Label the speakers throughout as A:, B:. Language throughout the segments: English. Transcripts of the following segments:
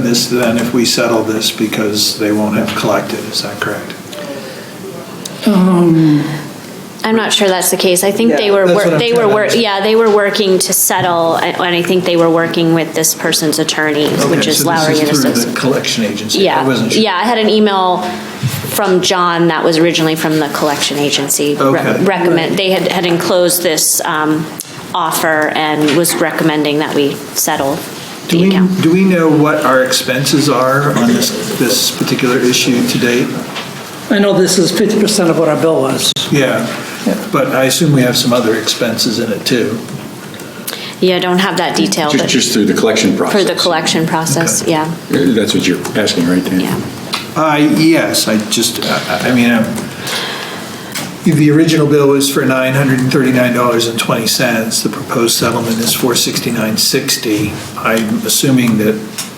A: this then if we settle this because they won't have collected, is that correct?
B: I'm not sure that's the case. I think they
A: Yeah,
B: were,
A: that's
B: wor-
A: what I'm
B: they
A: trying to
B: were, wor-
A: understand.
B: yeah, they were working to settle, and and I think they were working with this person's attorney, which
A: Okay,
B: is
A: so this
B: Lowry and
A: through
B: Associates.
A: the collection agency? I
B: Yeah,
A: wasn't sure.
B: yeah, I had an email from John that was originally from the collection agency. re-
A: Okay.
B: Recommend, they had, had enclosed this um, offer and was recommending that we settle
A: Do
B: the
A: we,
B: account.
A: do we know what our expenses are on this, this particular issue to date?
C: I know this is 50% of what our bill was.
A: Yeah, but I assume we have some other expenses in it too.
B: Yeah, I don't have that detail,
D: Just,
B: but
D: just through the collection
B: for
D: process. Uh,
B: the collection process,
A: Okay.
B: yeah,
D: That's what you're asking, right, Dan?
B: yeah.
A: Uh, yes, I just, I I mean, um, the original bill was for $939.20. The proposed settlement is $469.60. I'm assuming that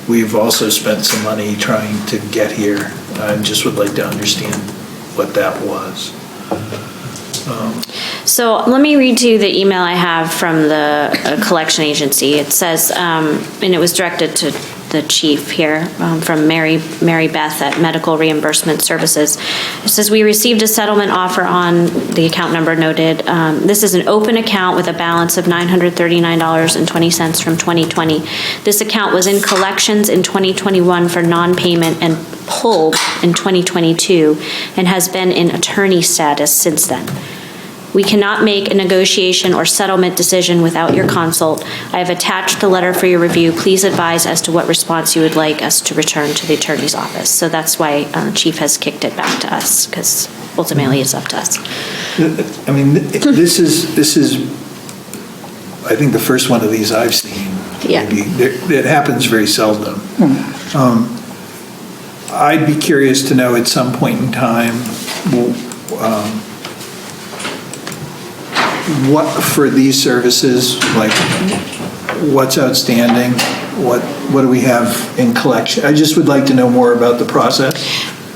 A: we've also spent some money trying to get here. I just would like to understand what that was.
B: So let me read to you the email I have from the uh, collection agency. It says, um, and it was directed to the chief here, um, from Mary, Mary Beth at Medical Reimbursement Services. It says, "We received a settlement offer on," the account number noted, um, "this is an open account with a balance of $939.20 from 2020. This account was in collections in 2021 for non-payment and pulled in 2022, and has been in attorney status since then. We cannot make a negotiation or settlement decision without your consult. I have attached the letter for your review. Please advise as to what response you would like us to return to the attorney's office. So that's why uh, Chief has kicked it back to us, because ultimately it's up to us.
A: I mean, th- this is, this is, I think the first one of these I've seen.
B: Yeah.
A: Maybe. There- It happens very seldom. Um, I'd be curious to know at some point in time, w- um, what, for these services, like, what's outstanding? What, what do we have in collection? I just would like to know more about the process.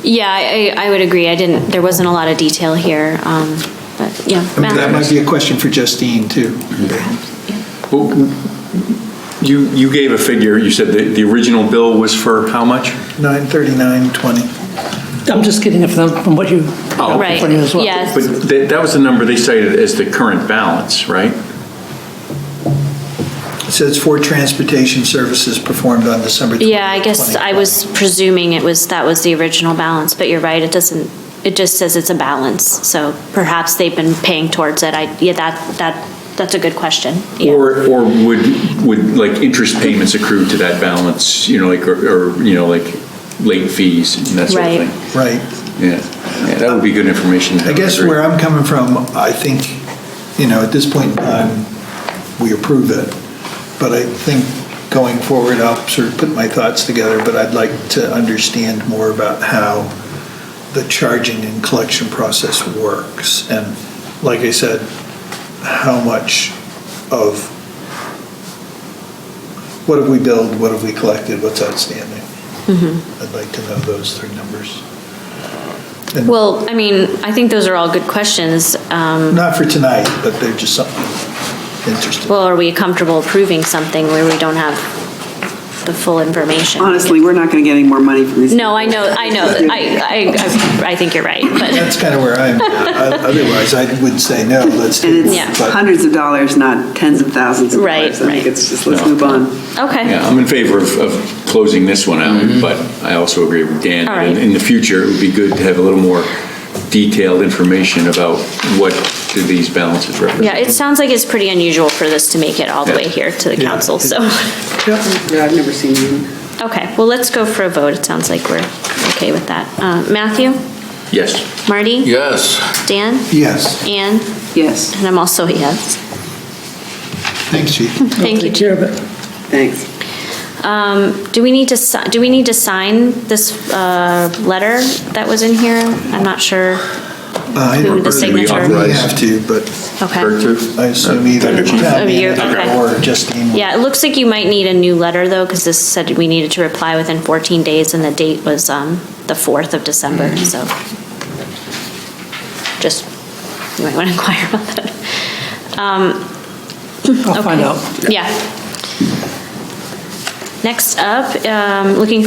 B: Yeah, I, I I would agree. I didn't, there wasn't a lot of detail here, um, but, yeah.
A: I mean, That
B: Matt?
A: might be a question for Justine, too.
D: Well, You, you gave a figure, you said the, the original bill was for how much?
A: 93920.
C: I'm just getting it from from what you,
D: Oh,
C: from
B: Right,
C: you as well.
B: yes.
D: But that, that was the number they cited as the current balance, right?
A: It says for transportation services performed on December 20.
B: Yeah, I guess I was presuming it was, that was the original balance, but you're right, it doesn't, it just says it's a balance, so perhaps they've been paying towards it, I, yeah, that, that, that's a good question, yeah.
D: Or, or would, would like interest payments accrue to that balance, you know, like, or, or, you know, like late fees and that sort of
B: Right.
D: thing?
A: Right.
D: Yeah, yeah, that would be good information. to
A: I
D: have,
A: guess
D: agree.
A: where I'm coming from, I think, you know, at this point in time, we approve it. But I think going forward, I'll sort of put my thoughts together, but I'd like to understand more about how the charging and collection process works. And like I said, how much of, what have we billed, what have we collected, what's outstanding? I'd like to know those three numbers. And-
B: Well, I mean, I think those are all good questions, um,
A: not for tonight, but they're just something interesting.
B: well, are we comfortable approving something where we don't have the full information?
E: Honestly, we're not going to get any more money from these.
B: No, I know, I know, I, I, I think you're right, but,
A: That's kind of where I'm, otherwise I would say no, let's
E: And
A: do
B: Yeah.
E: it's hundreds of dollars, not tens of thousands of
B: Right,
E: dollars. I think
B: right.
E: it's just, let's
D: No.
E: move on.
B: okay.
D: Yeah, I'm in favor of, of closing this one out, but I also agree with Dan.
B: Mm-hmm. All right.
D: In- In the future, it would be good to have a little more detailed information about what do these balances represent.
B: Yeah, it sounds like it's pretty unusual for this to make it all the way
D: Yeah.
B: here to the
A: Yeah.
B: council, so.
E: Yeah, I've never seen you.
B: Okay, well, let's go for a vote. It sounds like we're okay with that. Uh, Matthew?
D: Yes,
B: Marty?
F: Yes,
B: Dan?
A: Yes,
B: Anne?
E: Yes,
B: And I'm also a yes.
A: thanks, chief. Uh,
B: Thank you.
C: Take care of it.
E: thanks.
B: Um, Do we need to, si- do we need to sign this uh, letter that was in here? I'm not sure. Who the signature?
A: We have to, but
D: Kirk,
B: Okay.
D: too?
A: I assume either town
B: Oh, you're-
A: manager
B: okay.
A: or Justine. will-
B: Yeah, it looks like you might need a new letter, though, because this said we needed to reply within 14 days, and the date was um, the 4th of December, so. Just, you might want to inquire about that. Um,
C: I'll find
B: Okay.
C: out.
B: Yeah. Next up, um, looking for